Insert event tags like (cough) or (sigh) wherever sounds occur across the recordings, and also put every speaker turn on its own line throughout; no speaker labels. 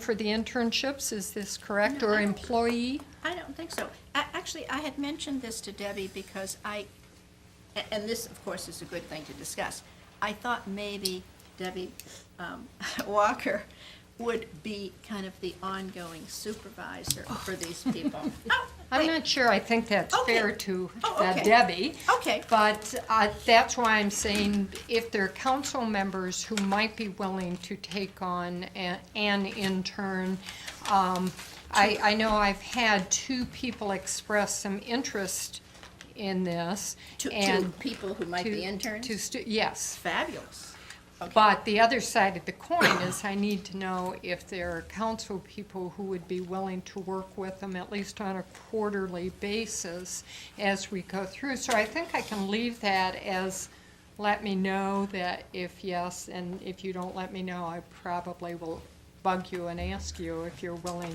for the internships, is this correct, or employee?
I don't think so. A- Actually, I had mentioned this to Debbie because I, a- and this, of course, is a good thing to discuss. I thought maybe Debbie um, (laughs) Walker would be kind of the ongoing supervisor for these
(laughs)
people. Oh,
I'm
wait.
not sure I think that's
Okay.
fair to
Oh,
uh,
okay.
Debbie.
Okay.
But uh, that's why I'm saying if there are council members who might be willing to take on a- an intern, um, I, I know I've had two people express some interest in this.
To, to
and
people who might
to-
be interns?
To, stu- yes.
Fabulous. Okay.
But the other side of the coin is I need to know if there are council people who would be willing to work with them, at least on a quarterly basis as we go through. So I think I can leave that as, let me know that if yes, and if you don't let me know, I probably will bug you and ask you if you're willing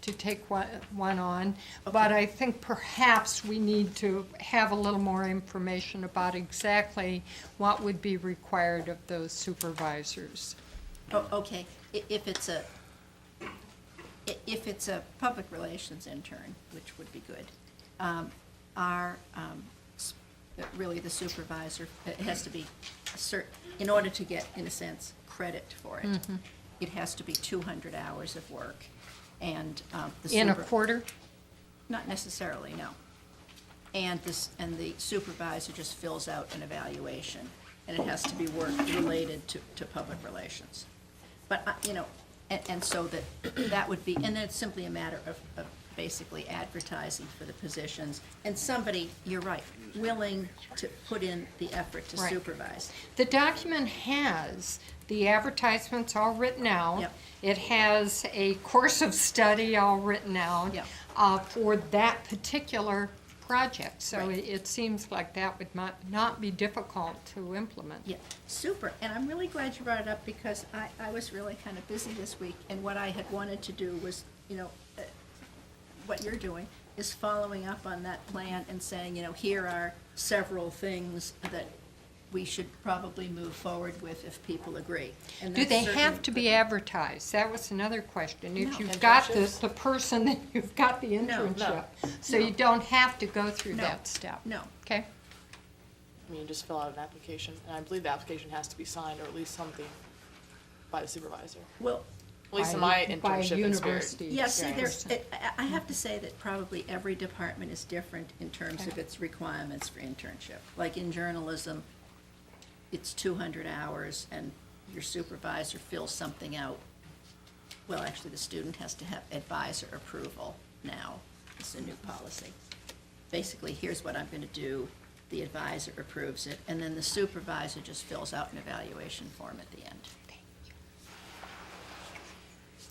to take one, one on. But I think perhaps we need to have a little more information about exactly what would be required of those supervisors.
Oh, okay, I- if it's a, i- if it's a public relations intern, which would be good, um, our, um, s- uh, really the supervisor, it has to be a cer, in order to get, in a sense, credit for it, it has to be two hundred hours of work, and, um, the
In a
super-
quarter?
Not necessarily, no. And this, and the supervisor just fills out an evaluation, and it has to be work related to, to public relations. But, I- you know, and, and so that, that would be, and then it's simply a matter of, of basically advertising for the positions, and somebody, you're right, willing to put in the effort to
Right.
supervise.
The document has the advertisements all written out.
Yep.
It has a course of study all written out
Yep.
uh, for that particular project. So
Right.
it it seems like that would not, not be difficult to implement.
Yeah, super, and I'm really glad you brought it up because I, I was really kind of busy this week, and what I had wanted to do was, you know, uh, what you're doing is following up on that plan and saying, you know, here are several things that we should probably move forward with if people agree. And
Do
that's
they
certainly-
have to be advertised? That was another question.
No.
If you've got the, the person, then (laughs) you've got the
no.
internship. So you
No.
don't have to go through
No.
that step.
No.
Okay,
I mean, you just fill out an application, and I believe the application has to be signed, or at least something, by the supervisor.
Well,
At least in
By-
my
by
internship experience.
university.
Yeah, see,
experience.
there's, it- I, I have to say that probably every department is different in terms of its requirements for internship. Like in journalism, it's two hundred hours and your supervisor fills something out. Well, actually, the student has to have advisor approval now. It's a new policy. Basically, here's what I'm gonna do, the advisor approves it, and then the supervisor just fills out an evaluation form at the end.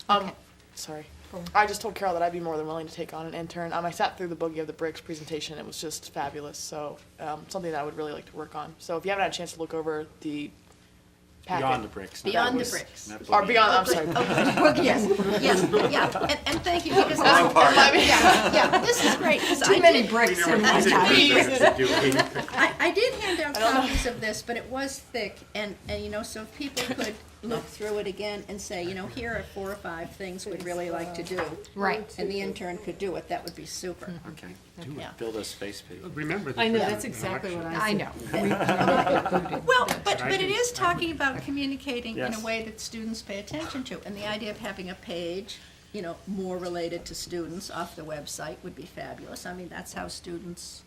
Um, sorry. I just told Carol that I'd be more than willing to take on an intern. Um, I sat through the Boogie of the Bricks presentation. It was just fabulous. So, um, something that I would really like to work on. So, if you haven't had a chance to look over the packet,
Beyond the bricks. not
Beyond the
was-
bricks.
not
or
boogie.
beyond, I'm sorry.
(laughs) Yes, yes, yeah, and, and thank you, because I,
Wrong part.
yeah, yeah, this is great, 'cause I
Too many
did-
We
bricks
never
in one
needed
time.
the bricks to do it.
I, I did hand out copies of this, but it was thick, and, and you know, so if people could look through it again and say, you know, here are four or five things we'd really like to do.
Right. Mm-hmm.
And the intern could do it, that would be super.
Okay, do
Yeah.
it, build a space page.
Remember the.
I know,
first
that's exactly what
election.
I
I
said.
know.
Well, but,
I
but it
can-
is talking about communicating in a
Yes.
way that students pay attention to, and the idea of having a page, you know, more related to students off the website would be fabulous. I mean, that's how students,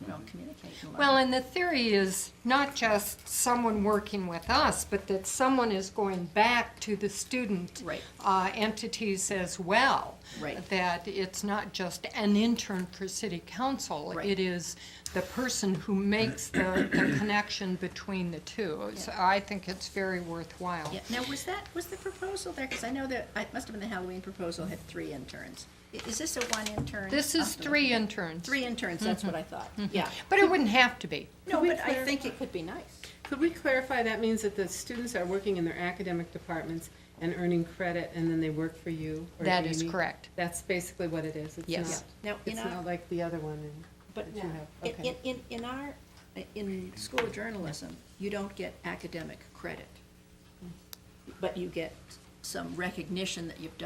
you know, communicate and learn.
Well, and the theory is not just someone working with us, but that someone is going back to the student
Right.
uh, entities as well.
Right.
That it's not just an intern for city council.
Right.
It is the person who makes the, the connection between the two. So I think it's very worthwhile.
Yeah, now, was that, was the proposal there, because I know that, it must have been the Halloween proposal had three interns. I- Is this a one intern?
This is
something?
three Mm-hmm. interns.
Three interns, that's what I thought, yeah.
But it wouldn't have to be.
No,
we
but I
clarify-
think it could be nice.
Could we clarify, that means that the students are working in their academic departments and earning credit, and then they work for you or
That is
Amy?
correct.
That's basically what it is. It's
Yes.
Yeah.
not,
Now, in
it's
our-
not like the other one. and-
But
that you have.
in,
Okay.
in- in, in our, in school
Hmm.
journalism, you don't get academic credit, but you get some recognition that you've done